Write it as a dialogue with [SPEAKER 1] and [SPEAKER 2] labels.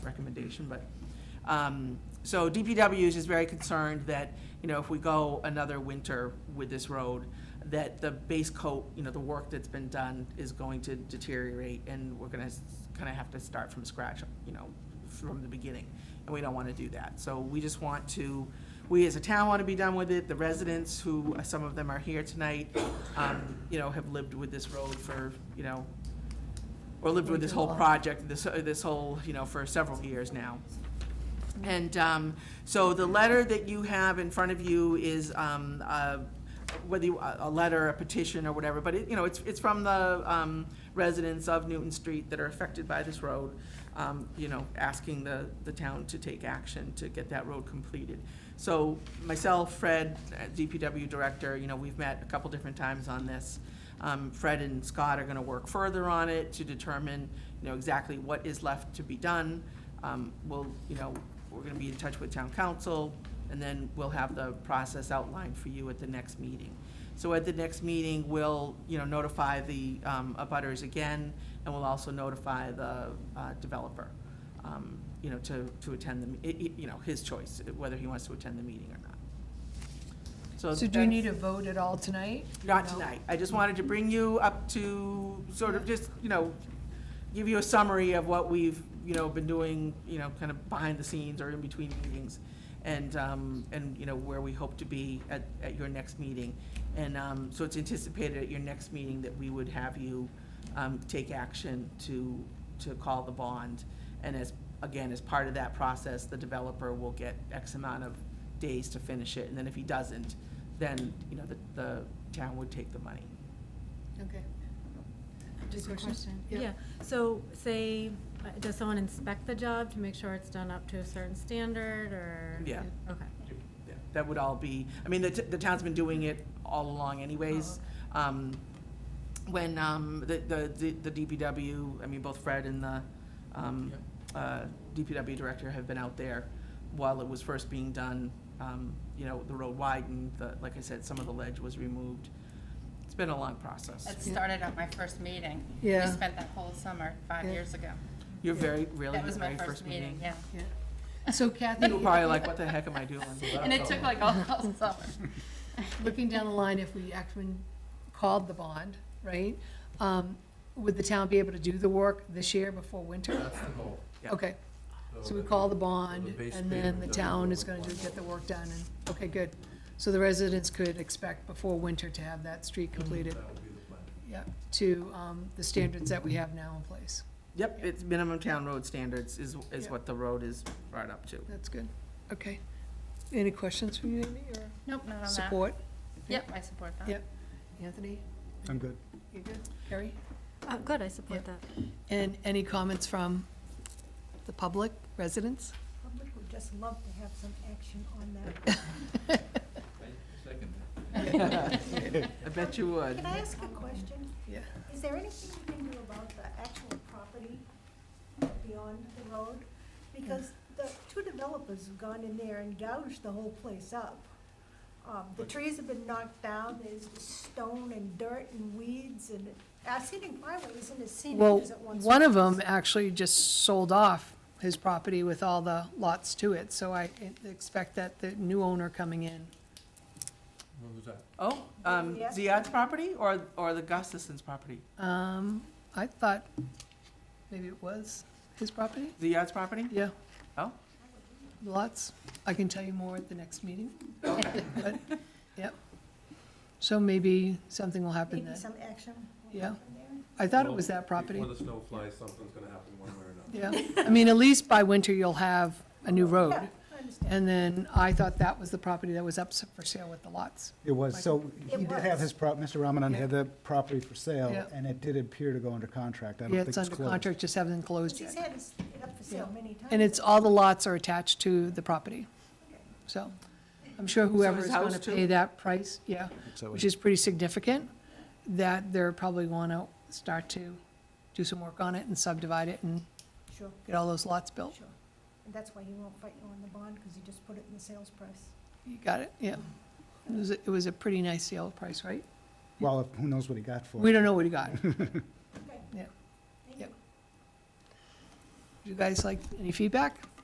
[SPEAKER 1] recommendation, but, um, so DPW is just very concerned that, you know, if we go another winter with this road, that the base coat, you know, the work that's been done is going to deteriorate, and we're gonna kind of have to start from scratch, you know, from the beginning, and we don't want to do that. So we just want to, we as a town want to be done with it, the residents who, some of them are here tonight, um, you know, have lived with this road for, you know, or lived with this whole project, this, uh, this whole, you know, for several years now. And um, so the letter that you have in front of you is, um, uh, whether you, a a letter, a petition, or whatever, but it, you know, it's, it's from the um, residents of Newton Street that are affected by this road, um, you know, asking the, the town to take action to get that road completed. So myself, Fred, uh, DPW Director, you know, we've met a couple different times on this. Um, Fred and Scott are gonna work further on it to determine, you know, exactly what is left to be done. Um, we'll, you know, we're gonna be in touch with town council, and then we'll have the process outlined for you at the next meeting. So at the next meeting, we'll, you know, notify the, um, abutters again, and we'll also notify the, uh, developer, um, you know, to, to attend the, me- i- i- you know, his choice, whether he wants to attend the meeting or not.
[SPEAKER 2] So do you
[SPEAKER 1] that's-
[SPEAKER 2] need a vote at all tonight?
[SPEAKER 1] not
[SPEAKER 2] No?
[SPEAKER 1] tonight. I just wanted to bring you up to, sort of just, you know, give you a summary of what we've, you know, been doing, you know, kind of behind the scenes or in between meetings, and, um, and, you know, where we hope to be at, at your next meeting. And, um, so it's anticipated at your next meeting that we would have you, um, take action to, to call the bond. And as, again, as part of that process, the developer will get X amount of days to finish it, and then if he doesn't, then, you know, the, the town would take the money.
[SPEAKER 3] Okay. Just a
[SPEAKER 2] Discussion?
[SPEAKER 3] question.
[SPEAKER 2] Yeah.
[SPEAKER 3] Yeah, so say, uh, does someone inspect the job to make sure it's done up to a certain standard or?
[SPEAKER 1] Yeah.
[SPEAKER 3] Okay.
[SPEAKER 1] Yeah, That would all be, I mean, the, t- the town's been doing it all along anyways.
[SPEAKER 4] Uh-huh.
[SPEAKER 1] Um, When, um, the, the, the DPW, I mean, both Fred and the, um, uh, DPW director have been out there while it was first being done, um, you know, the road widened, the, like I said, some of the ledge was removed. It's been a long process.
[SPEAKER 4] It started at my first meeting.
[SPEAKER 2] Yeah.
[SPEAKER 4] We spent that whole summer, five
[SPEAKER 2] Yeah.
[SPEAKER 4] years ago.
[SPEAKER 1] You're very, really,
[SPEAKER 4] That
[SPEAKER 1] your
[SPEAKER 4] was my
[SPEAKER 1] very
[SPEAKER 4] first meeting, yeah.
[SPEAKER 2] Yeah. So Kathy,
[SPEAKER 1] You were probably like, what the heck am I doing?
[SPEAKER 4] And it took like all all summer.
[SPEAKER 2] looking down the line, if we actually called the bond, right? um, Would the town be able to do the work this year before winter?
[SPEAKER 5] That's the goal.
[SPEAKER 1] Yeah.
[SPEAKER 2] Okay, so we call the bond and then the town is going to get the work done and, okay, good. So the residents could expect before winter to have that street completed,
[SPEAKER 5] That would be the plan.
[SPEAKER 2] yeah, to um, the standards that we have now in place.
[SPEAKER 1] Yep, it's minimum town road standards is, is
[SPEAKER 2] Yeah.
[SPEAKER 1] what the road is brought up to.
[SPEAKER 2] That's good, okay. Any questions from you, Amy, or
[SPEAKER 4] Nope, not on that.
[SPEAKER 2] support?
[SPEAKER 4] Yep, I support that.
[SPEAKER 2] Yep. Anthony,
[SPEAKER 6] I'm good.
[SPEAKER 2] you good? Harry?
[SPEAKER 3] Uh, good, I support that.
[SPEAKER 2] And any comments from the public, residents?
[SPEAKER 7] Public would just love to have some action on that.
[SPEAKER 1] I bet you would.
[SPEAKER 7] Can I ask a question?
[SPEAKER 2] Yeah.
[SPEAKER 7] Is there anything we can do about the actual property beyond the road? Because the two developers have gone in there and gouged the whole place up. Um, the trees have been knocked down, there's stone and dirt and weeds and, our scenic byway isn't as
[SPEAKER 2] Well,
[SPEAKER 7] scenic as it once was.
[SPEAKER 2] one of them actually just sold off his property with all the lots to it, so I expect that the new owner coming in.
[SPEAKER 5] What was that?
[SPEAKER 1] Oh, um,
[SPEAKER 7] Yeah.
[SPEAKER 1] Ziad's property or, or the Gustafson's property?
[SPEAKER 2] Um, I thought maybe it was his property?
[SPEAKER 1] Ziad's property?
[SPEAKER 2] Yeah,
[SPEAKER 1] Oh,
[SPEAKER 2] lots. I can tell you more at the next meeting. But, Yep. So maybe something will happen
[SPEAKER 7] Maybe
[SPEAKER 2] then.
[SPEAKER 7] some action. will
[SPEAKER 2] Yeah.
[SPEAKER 7] happen there.
[SPEAKER 2] I thought it was that property.
[SPEAKER 5] Before the snow flies, something's gonna happen one way or another.
[SPEAKER 2] Yeah, I mean, at least by winter you'll have a new road.
[SPEAKER 7] Yeah, I understand.
[SPEAKER 2] And then I thought that was the property that was up for sale with the lots.
[SPEAKER 6] It was, so
[SPEAKER 7] It
[SPEAKER 6] he did have
[SPEAKER 7] was.
[SPEAKER 6] his prop, Mr. Ramadan had the property for
[SPEAKER 2] Yeah.
[SPEAKER 6] sale, and it did appear to go under contract. I don't
[SPEAKER 2] Yeah,
[SPEAKER 6] think
[SPEAKER 2] it's
[SPEAKER 6] it's
[SPEAKER 2] under
[SPEAKER 6] closed.
[SPEAKER 2] contract, just haven't closed
[SPEAKER 7] He's
[SPEAKER 2] yet.
[SPEAKER 7] had it up for sale many times.
[SPEAKER 2] And it's, all the lots are attached to the property. So I'm sure whoever
[SPEAKER 1] his
[SPEAKER 2] is going
[SPEAKER 1] house
[SPEAKER 2] to
[SPEAKER 1] too?
[SPEAKER 2] pay that price, yeah,
[SPEAKER 6] So
[SPEAKER 2] which is pretty significant, that they're probably going to start to do some work on it and subdivide it and
[SPEAKER 7] Sure,
[SPEAKER 2] get all those lots built.
[SPEAKER 7] sure. And that's why he won't fight you on the bond, because he just put it in the sales price.
[SPEAKER 2] You got it, yeah. It was, a- it was a pretty nice sale price, right?
[SPEAKER 6] Well, who knows what he got for it?
[SPEAKER 2] We don't know what he got.
[SPEAKER 7] Okay.
[SPEAKER 2] Yeah.
[SPEAKER 7] Thank
[SPEAKER 2] Yep.
[SPEAKER 7] you.
[SPEAKER 2] you guys like, any feedback?